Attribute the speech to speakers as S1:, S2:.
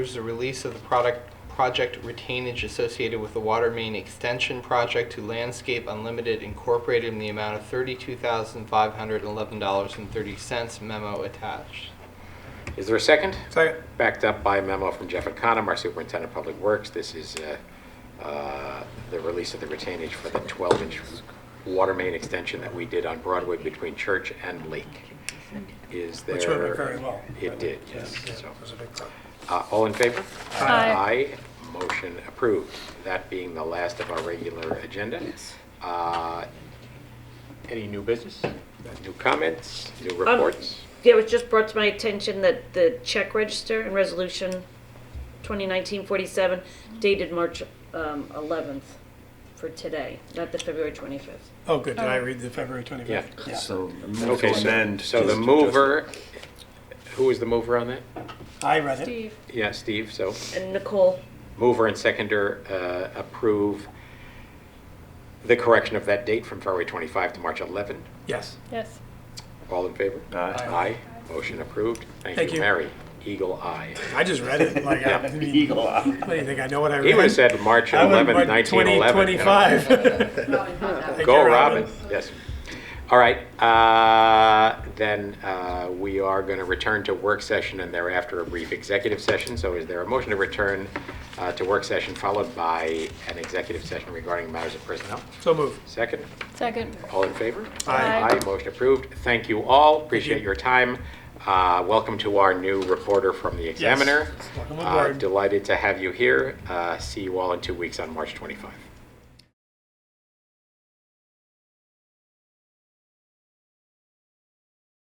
S1: There's the release of the product, project retainage associated with the water main extension project to Landscape Unlimited Incorporated in the amount of thirty-two thousand five hundred eleven dollars and thirty cents memo attached.
S2: Is there a second?
S3: Second.
S2: Backed up by a memo from Jeff Econom, our Superintendent of Public Works. This is uh, uh, the release of the retainage for the 12-inch water main extension that we did on Broadway between Church and Lake. Is there?
S3: Which went very well.
S2: It did, yes.
S3: Yeah,
S2: So,
S3: It was a big problem.
S2: uh, All in favor?
S4: Aye.
S2: Motion approved. That being the last of our regular agenda. Uh, Any new business? New comments? New reports?
S4: Yeah, it was just brought to my attention that the check register and resolution 2019-47 dated March um, 11th for today, not the February 25th.
S3: Oh, good, did I read the February 25th?
S2: Yeah.
S5: So, move
S2: Okay,
S5: to
S2: so,
S5: amend.
S2: so
S5: to-
S2: the
S5: to
S2: mover, who was the mover on that?
S3: I read it.
S4: Steve.
S2: Yeah, Steve, so
S4: And Nicole,
S2: mover and seconder uh, approve the correction of that date from February 25 to March 11.
S3: Yes.
S6: Yes.
S2: All in favor?
S5: Aye.
S2: Aye, motion approved. Thank
S3: Thank
S2: you,
S3: you.
S2: Mary. Eagle eye.
S3: I just read it, like, I I mean,
S5: Eagle eye.
S3: what do you think, I know what I read?
S2: He would have said March
S3: I would've
S2: 11,
S3: read
S2: 1911. you know.
S3: 2025. Thank
S2: Go
S3: you,
S2: Robin, yes. All right, uh, then uh, we are going to return to work session and thereafter a brief executive session. So is there a motion to return uh, to work session followed by an executive session regarding matters of personnel?
S3: So moved.
S2: Second,
S6: Second.
S2: all in favor?
S3: Aye.
S2: Aye, motion approved. Thank you all, appreciate your time. Uh, Welcome to our new reporter from the Examiner.
S3: Welcome
S2: Uh,
S3: aboard.
S2: Delighted to have you here. Uh, See you all in two weeks on March 25.